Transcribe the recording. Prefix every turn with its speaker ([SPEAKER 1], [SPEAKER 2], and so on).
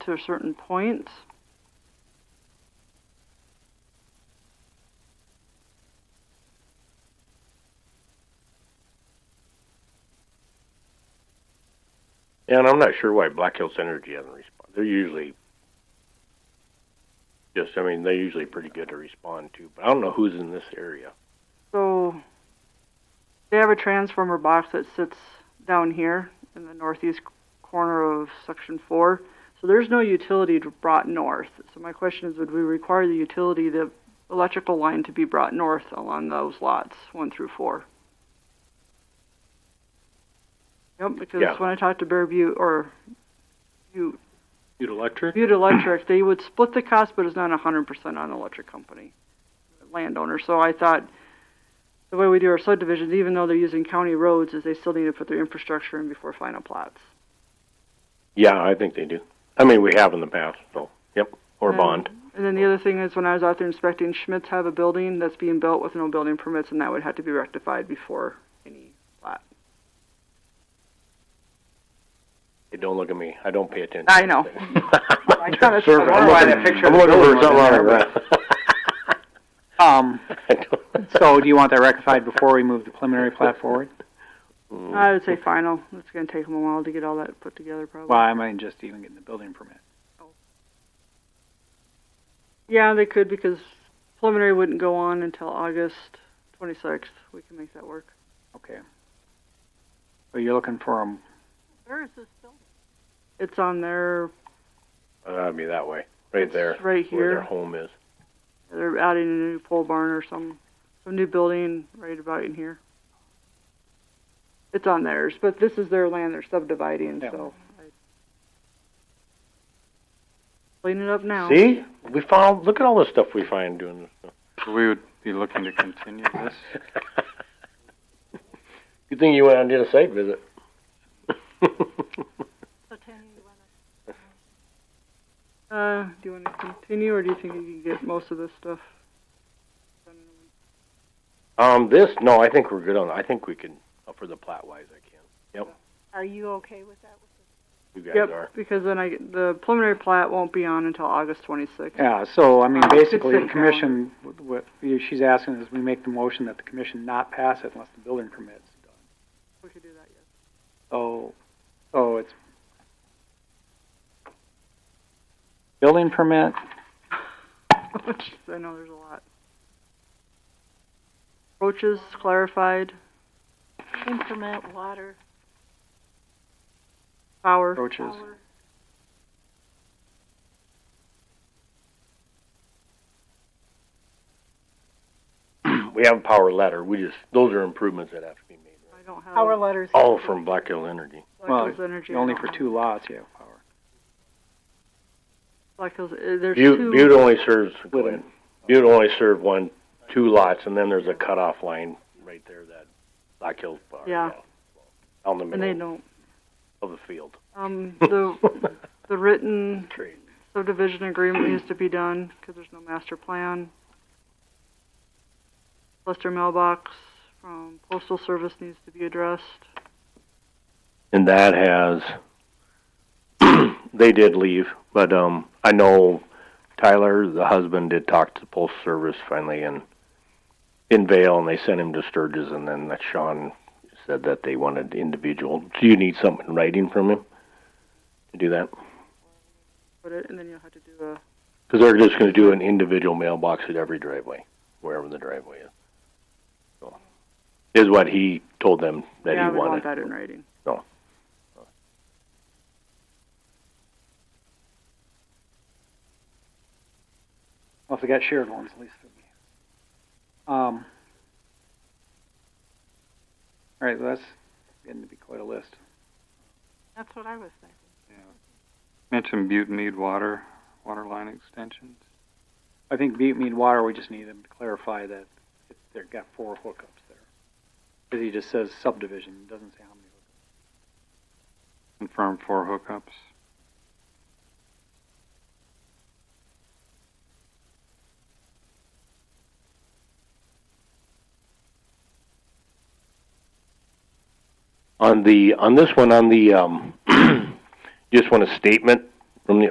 [SPEAKER 1] to a certain point.
[SPEAKER 2] Yeah, and I'm not sure why Black Hills Energy hasn't responded. They're usually just, I mean, they're usually pretty good to respond to, but I don't know who's in this area.
[SPEAKER 1] So they have a transformer box that sits down here in the northeast corner of section four. So there's no utility to- brought north. So my question is, would we require the utility, the electrical line to be brought north along those lots, one through four? Yep, because
[SPEAKER 2] Yeah.
[SPEAKER 1] when I talked to Bear Butte or Butte,
[SPEAKER 2] Butte Electric?
[SPEAKER 1] Butte Electric, they would split the cost, but it's not hundred percent on the electric company, landowner. So I thought the way we do our subdivisions, even though they're using county roads, is they still need to put their infrastructure in before final plots.
[SPEAKER 2] Yeah, I think they do. I mean, we have in the past, so, yep, or
[SPEAKER 1] Yeah.
[SPEAKER 2] bond.
[SPEAKER 1] And then the other thing is when I was out there inspecting, Schmidt's have a building that's being built with no building permits, and that would have to be rectified before any.
[SPEAKER 2] Hey, don't look at me. I don't pay attention.
[SPEAKER 1] I know.
[SPEAKER 2] I
[SPEAKER 1] thought it's- I
[SPEAKER 3] wonder why that picture
[SPEAKER 2] I'm
[SPEAKER 3] of the
[SPEAKER 2] looking for
[SPEAKER 3] building
[SPEAKER 2] something on the
[SPEAKER 3] wasn't
[SPEAKER 2] ground.
[SPEAKER 3] Um,
[SPEAKER 2] I don't-
[SPEAKER 3] so do you want that rectified before we move the preliminary plat forward?
[SPEAKER 2] Mm.
[SPEAKER 1] I would say final. It's going to take them a while to get all that put together, probably.
[SPEAKER 3] Well, I might just even get the building permit.
[SPEAKER 1] Yeah, they could because preliminary wouldn't go on until August 26th. We can make that work.
[SPEAKER 3] Okay. So you're looking for them,
[SPEAKER 1] Where is this building? It's on their,
[SPEAKER 2] That'd be that way, right there,
[SPEAKER 1] it's right
[SPEAKER 2] where their
[SPEAKER 1] here.
[SPEAKER 2] home is.
[SPEAKER 1] They're adding a new pole barn or some, some new building right about in here. It's on theirs, but this is their land they're subdividing,
[SPEAKER 3] Yeah.
[SPEAKER 1] so. I- Clean it up now.
[SPEAKER 2] See, we found. Look at all the stuff we find doing this. Stuff.
[SPEAKER 4] So we would be looking to continue this.
[SPEAKER 2] Good thing you went out and did a site visit.
[SPEAKER 1] Uh, do you wanna continue or do you think you can get most of this stuff? done in a week?
[SPEAKER 2] um, this no, I think we're good on. I think we can uh, for the plat wise. I can.
[SPEAKER 5] Are you okay with that?
[SPEAKER 2] You guys are.
[SPEAKER 1] Yep, because then I, get- the preliminary plat won't be on until August twenty-sixth.
[SPEAKER 3] yeah, so I mean,
[SPEAKER 1] Uh, it's
[SPEAKER 3] basically,
[SPEAKER 1] sitting
[SPEAKER 3] the
[SPEAKER 1] there.
[SPEAKER 3] commission, what- what you- she's asking is we make the motion that the commission not pass it unless the building permit's done.
[SPEAKER 1] We could do that, yes.
[SPEAKER 3] So, so it's building permit,
[SPEAKER 1] Which I know there's a lot. Approaches clarified,
[SPEAKER 5] Implement water.
[SPEAKER 1] power,
[SPEAKER 3] approaches,
[SPEAKER 5] power.
[SPEAKER 2] We have a power letter. We just those are improvements that have to be made.
[SPEAKER 1] I don't have.
[SPEAKER 5] Power letters.
[SPEAKER 2] All from Black Hill Energy.
[SPEAKER 3] well,
[SPEAKER 1] Black Hills Energy. I
[SPEAKER 3] only
[SPEAKER 1] don't
[SPEAKER 3] for
[SPEAKER 1] have.
[SPEAKER 3] two lots, you have power.
[SPEAKER 1] Black Hills, uh, there's
[SPEAKER 2] Butte, Butte
[SPEAKER 1] two,
[SPEAKER 2] only serves
[SPEAKER 3] Wait a
[SPEAKER 2] Glenn. Butte only served one, two lots, and then there's a cutoff line right there that Black Hills Bar.
[SPEAKER 1] Yeah.
[SPEAKER 2] Down the
[SPEAKER 1] and they
[SPEAKER 2] middle
[SPEAKER 1] don't,
[SPEAKER 2] of the field.
[SPEAKER 1] um, the, the written
[SPEAKER 2] Great.
[SPEAKER 1] subdivision agreement needs to be done, cause there's no master plan. Lester mailbox from postal service needs to be addressed.
[SPEAKER 2] and that has they did leave but um i know tyler the husband did talk to the postal service finally in in vale and they sent him to sturgis and then that sean said that they wanted individual do you need something in writing from him to do that
[SPEAKER 1] Put it, and then you'll have to do a,
[SPEAKER 2] because they're just going to do an individual mailbox at every driveway wherever the driveway is so, is what he told them that
[SPEAKER 1] yeah,
[SPEAKER 2] he
[SPEAKER 1] we want
[SPEAKER 2] wanted
[SPEAKER 1] that in writing.
[SPEAKER 3] Well, if they got shared ones, at least. it'd be- Um, all right, that's getting to be quite a list.
[SPEAKER 5] That's what I was thinking.
[SPEAKER 4] Mentioned Butte need water, water line extensions.
[SPEAKER 3] I think Butte Mead Water, we just need them to clarify that it- they've got four hookups there. Because he just says subdivision, it doesn't say how many. hookups.
[SPEAKER 4] Confirm four hookups.
[SPEAKER 2] on the on this one on the um just want a statement from the